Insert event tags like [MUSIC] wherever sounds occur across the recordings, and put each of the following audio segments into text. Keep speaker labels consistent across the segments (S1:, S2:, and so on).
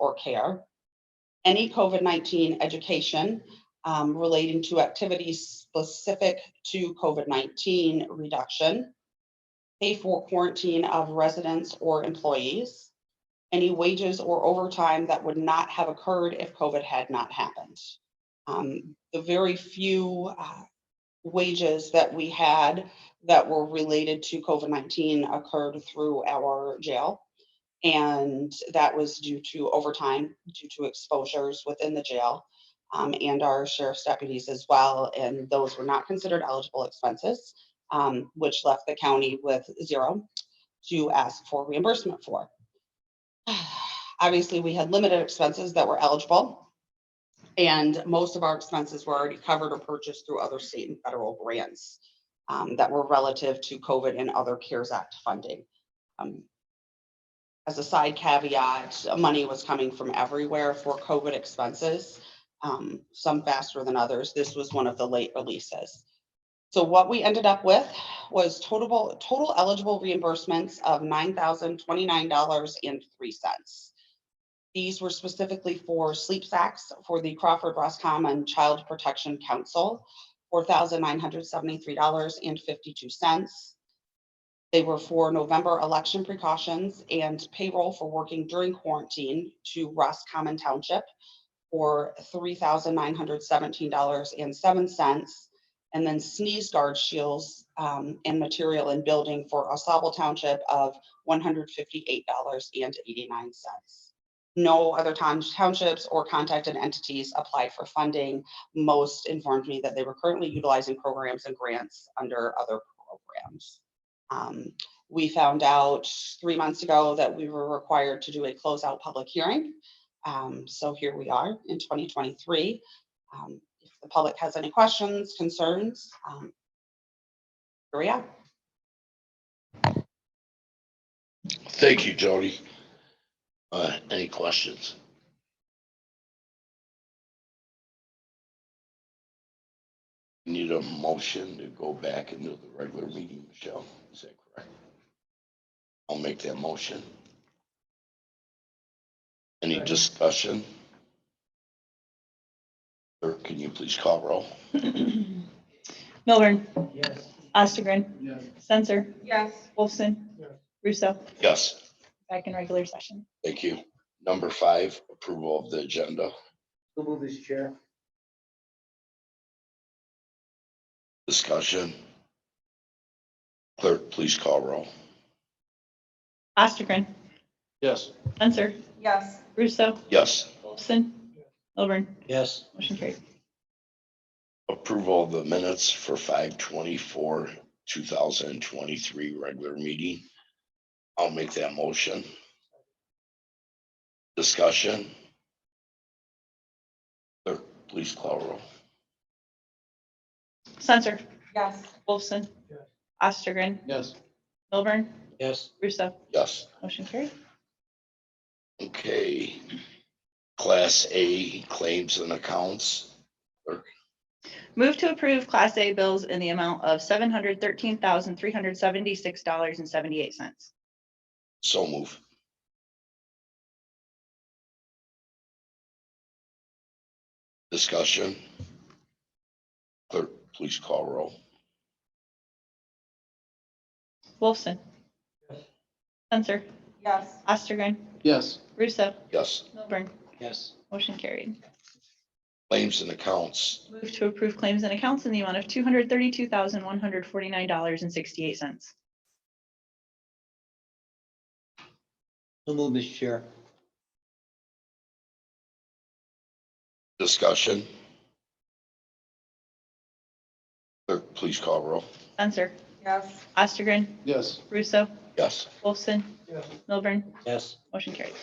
S1: or care. Any COVID-19 education um, relating to activities specific to COVID-19 reduction. Pay for quarantine of residents or employees. Any wages or overtime that would not have occurred if COVID had not happened. Um, The very few uh, wages that we had that were related to COVID-19 occurred through our jail. And that was due to overtime, due to exposures within the jail, um, and our sheriff's deputies as well. And those were not considered eligible expenses, um, which left the county with zero to ask for reimbursement for. [SIGHS] Obviously, we had limited expenses that were eligible. And most of our expenses were already covered or purchased through other state and federal grants um, that were relative to COVID and other CARES Act funding. Um, As a side caveat, money was coming from everywhere for COVID expenses, um, some faster than others. This was one of the late releases. So what we ended up with was total, total eligible reimbursements of nine thousand twenty-nine dollars and three cents. These were specifically for sleep sacks for the Crawford Roscommon Child Protection Council four thousand nine hundred seventy-three dollars and fifty-two cents. They were for November election precautions and payroll for working during quarantine to Roscommon Township for three thousand nine hundred seventeen dollars and seven cents. And then sneeze guard shields um, and material and building for Osable Township of one hundred fifty-eight dollars and eighty-nine cents. No other towns- townships or contacted entities applied for funding most informed me that they were currently utilizing programs and grants under other programs. Um, We found out three months ago that we were required to do a closeout public hearing. Um, So here we are in 2023. Um, If the public has any questions, concerns, um, here we are.
S2: Thank you, Jody. Uh, any questions? Need a motion to go back into the regular meeting, Michelle, is that correct? I'll make that motion. Any discussion? Clerk, can you please call roll?
S3: [CLEARS THROAT] Milburn,
S4: Yes.
S3: Ostergren,
S4: Yes.
S3: Censor,
S5: yes,
S3: Wolfson,
S4: Yes.
S3: Russo,
S2: Yes.
S3: back in regular session.
S2: Thank you. Number five, approval of the agenda.
S4: So move this chair.
S2: Discussion. Clerk, please call roll.
S3: Ostergren,
S2: Yes.
S3: Censor,
S5: yes,
S3: Russo,
S2: Yes.
S3: Wolfson, Milburn,
S4: Yes.
S3: motion carried.
S2: Approval of the minutes for five twenty-four, two thousand and twenty-three regular meeting. I'll make that motion. Discussion. Clerk, please call roll.
S3: Censor,
S5: yes,
S3: Wolfson,
S4: Yes.
S3: Ostergren,
S4: Yes.
S3: Milburn,
S4: Yes.
S3: Russo,
S2: Yes.
S3: motion carried.
S2: Okay. Class A claims and accounts.
S3: Move to approve Class A bills in the amount of seven hundred thirteen thousand, three hundred seventy-six dollars and seventy-eight cents.
S2: So move. Discussion. Clerk, please call roll.
S3: Wolfson, Censor,
S5: yes,
S3: Ostergren,
S4: Yes.
S3: Russo,
S2: Yes,
S3: Milburn,
S4: Yes.
S3: motion carried.
S2: claims and accounts.
S3: Move to approve claims and accounts in the amount of two hundred thirty-two thousand, one hundred forty-nine dollars and sixty-eight cents.
S4: So move this chair.
S2: Discussion. Clerk, please call roll.
S3: Censor,
S5: yes,
S3: Ostergren,
S4: Yes.
S3: Russo,
S2: Yes,
S3: Wolfson,
S4: Yes.
S3: Milburn,
S4: Yes.
S3: motion carried.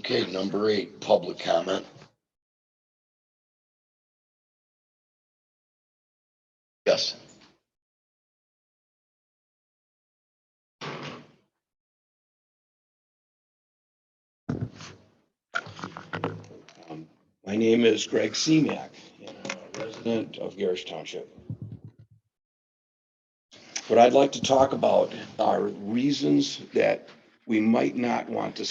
S2: okay, number eight, public comment. Yes,
S6: Um, My name is Greg Seemack, and I'm a resident of Garrish Township. What I'd like to talk about are reasons that we might not want to